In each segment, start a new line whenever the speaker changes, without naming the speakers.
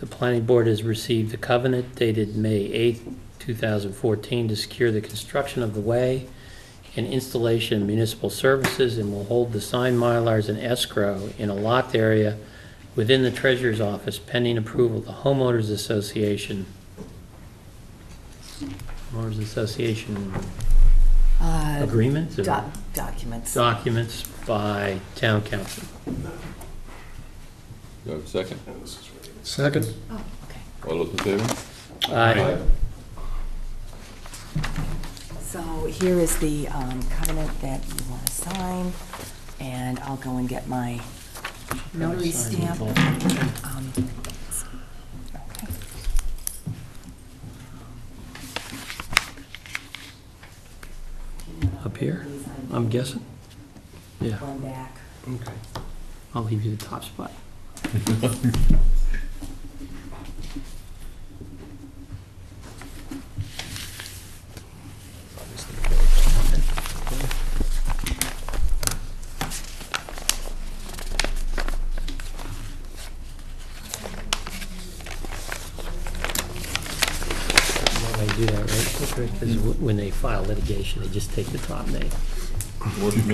the planning board has received a covenant dated May 8th, 2014, to secure the construction of the way and installation of municipal services, and will hold the signed Mylars in escrow in a locked area within the treasurer's office pending approval of the homeowners association. Homeowners association
Uh,
agreements or
doc- Documents.
documents by town council.
Do I have a second?
Second.
Oh, okay.
All those in favor?
Aye.
So here is the um, covenant that you want to sign, and I'll go and get my notary stamp. Um, okay.
Up here, I'm guessing. Yeah,
One back.
Okay.
I'll leave you the top spot. Why do I do that, right? Because wh- when they file litigation, they just take the top name.
Work for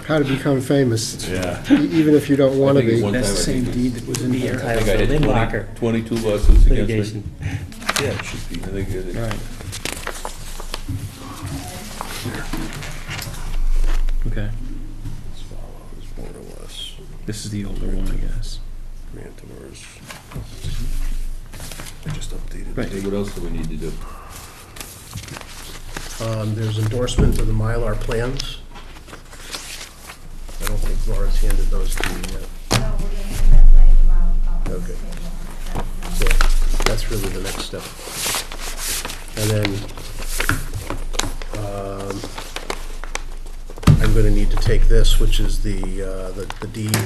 me.
How to become famous, e-
Yeah.
even if you don't want to
I think
be.
one time
That's the
I
same
think-
deed that was in
Be
here.
I think I
entitled to
had
Lindbacher
20 22 lawsuits against me.
litigation.
Yeah, it should be.
I think it is.
Right.
Okay. This is the older one, I guess.
I just updated.
Right.
Hey, what else do we need to do?
Um, there's endorsement of the Mylar plans. I don't think Laura's handed those to you yet.
No, we're gonna end up laying them out out on the
Okay.
table.
So that's really the next step. And then, um, I'm gonna need to take this, which is the, uh, the the deed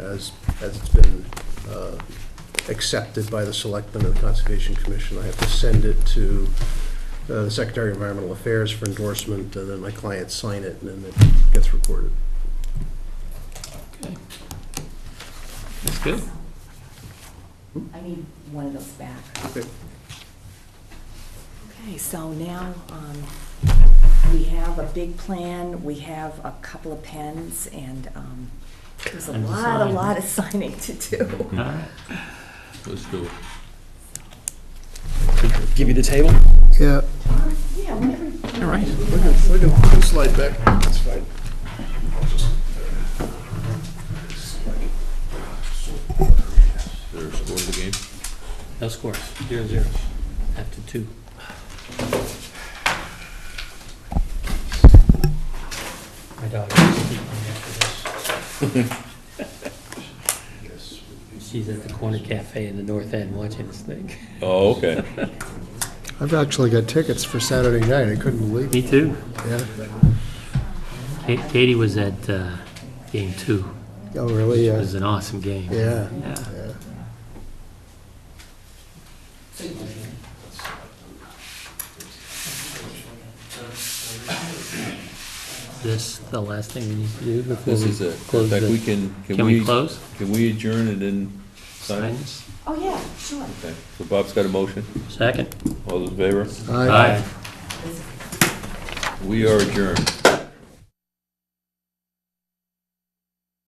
as, as it's been, uh, accepted by the Selectmen and the Conservation Commission. I have to send it to uh, the Secretary of Environmental Affairs for endorsement, and then my clients sign it, and then it gets recorded.
Okay. That's good.
I need one of those back.
Okay.
Okay, so now, um, we have a big plan, we have a couple of pens, and um, there's a
And to
lot, a
sign.
lot of signing to do.
Hmm.
All right.
Let's do it.
Give you the table?
Yeah,
Yeah, whenever.
All right.
We can, we can- we can slide back, that's fine.
Is there a score to the game?
No score, zero, zero, after two. My dog is sleeping after this. She's at the corner cafe in the north end watching this thing.
Oh, okay.
I've actually got tickets for Saturday night, I couldn't believe it,
Me too.
yeah.
Katie was at uh, game two.
Oh, really,
It
yeah,
was an awesome game. Yeah.
yeah, yeah.
This, the last thing we need to do before
This
we
is it. In
close
fact, we
the...
can,
Can
can
we
we,
close?
can we adjourn and then sign?
Sign this?
Oh, yeah, sure.
Okay. So Bob's got a motion.
Second?
All those in favor?
I-
Aye.
We are adjourned.